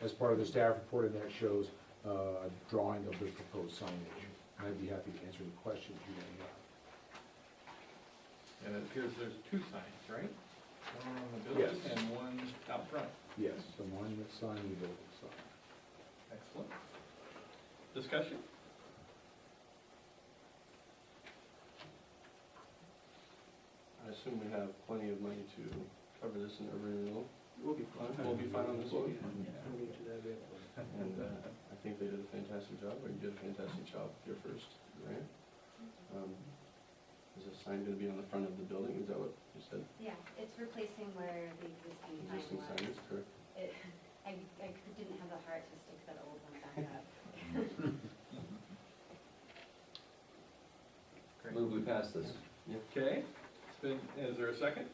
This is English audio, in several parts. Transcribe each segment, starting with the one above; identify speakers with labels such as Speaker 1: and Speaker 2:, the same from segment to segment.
Speaker 1: as part of the staff report, and that shows uh, a drawing of the proposed signage. And I'd be happy to answer any questions you may have.
Speaker 2: And it appears there's two signs, right? One on the building
Speaker 1: Yes.
Speaker 2: and one out front.
Speaker 1: Yes, the monument sign, the building sign.
Speaker 2: Excellent. Discussion?
Speaker 3: I assume we have plenty of money to cover this in every renewal,
Speaker 4: We'll be
Speaker 3: fine. We'll be fine on this one?
Speaker 4: We'll get to that bit.
Speaker 3: and uh, I think they did a fantastic job, or you did a fantastic job with your first grant. Um, Is this sign gonna be on the front of the building, is that what you said?
Speaker 5: Yeah, it's replacing where the existing
Speaker 3: Existing sign
Speaker 5: sign was.
Speaker 3: is correct?
Speaker 5: It- I, I didn't have the heart to stick that old one back up.
Speaker 2: Great.
Speaker 6: Move we pass this.
Speaker 2: Okay, it's been, is there a second?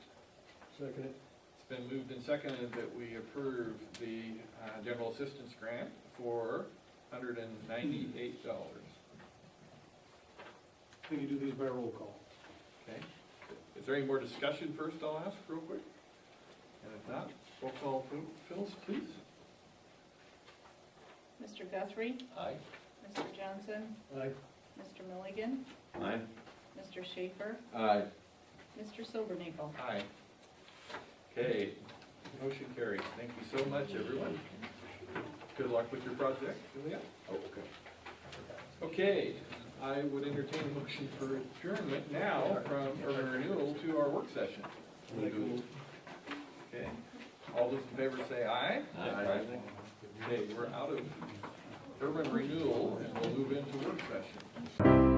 Speaker 4: Second it.
Speaker 2: It's been moved and seconded that we approve the uh, general assistance grant for hundred and ninety-eight dollars.
Speaker 4: We can do these by roll call.
Speaker 2: Okay, is there any more discussion first, I'll ask real quick? And if not, roll call, Phyllis, please.
Speaker 7: Mr. Guthrie,
Speaker 6: Aye.
Speaker 7: Mr. Johnson,
Speaker 4: Aye.
Speaker 7: Mr. Milligan,
Speaker 6: Aye.
Speaker 7: Mr. Schaefer,
Speaker 6: Aye.
Speaker 7: Mr. Silvernagle.
Speaker 2: Aye. Okay, motion carries. Thank you so much, everyone. Good luck with your project, Julia.
Speaker 1: Oh, okay.
Speaker 2: Okay, I would entertain a motion for adjournment now from urban renewal to our work session. Okay, all those in favor say aye.
Speaker 6: Aye.
Speaker 2: Okay, we're out of urban renewal and we'll move into work session.